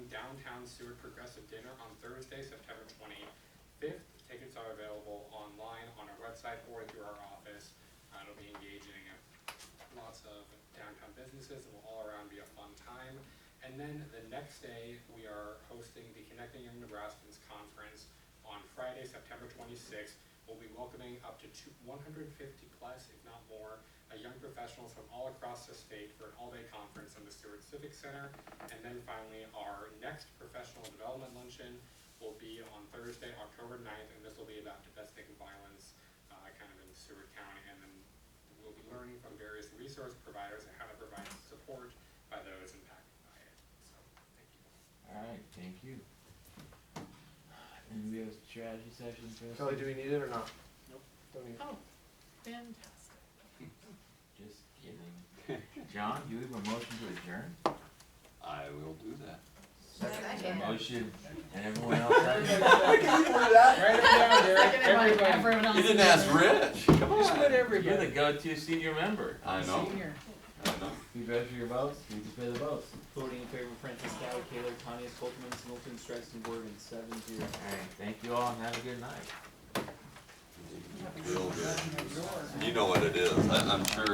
Town Sewer Progressive Dinner on Thursday, September twenty-fifth. Tickets are available online on our website or through our office. Uh, It'll be engaging lots of downtown businesses, and will all around be a fun time. And then the next day, we are hosting the Connecting Young Nebraskans Conference on Friday, September twenty-sixth. We'll be welcoming up to two, one hundred and fifty plus, if not more, uh, young professionals from all across the state for an all-day conference in the Stewart Civic Center. And then finally, our next professional development luncheon will be on Thursday, October 9th, and this will be about domestic violence, uh, kind of in Stewart County, and then we'll be learning from various resource providers and how to provide support by those impacted by it. So, thank you. Alright, thank you. And we have a strategy session for us. Kelly, do we need it or not? Nope. Don't need it. Oh, fantastic. Just kidding. John, do we have a motion to adjourn? I will do that. Motion, and everyone else second? Write it down, Derek. Seconded by Everybody. everyone else. You didn't ask Rich. Come Just let on. You're the go-to senior member. I know. Senior. Oh, I know. We vote for your votes, we display the votes. Voting in favor of Francis Dow, Taylor, Tanya, Coltman, Singleton, Streisand, Morgan, seven zero. Alright, thank you all and have a good night. Real good. You know what it is. I, I'm sure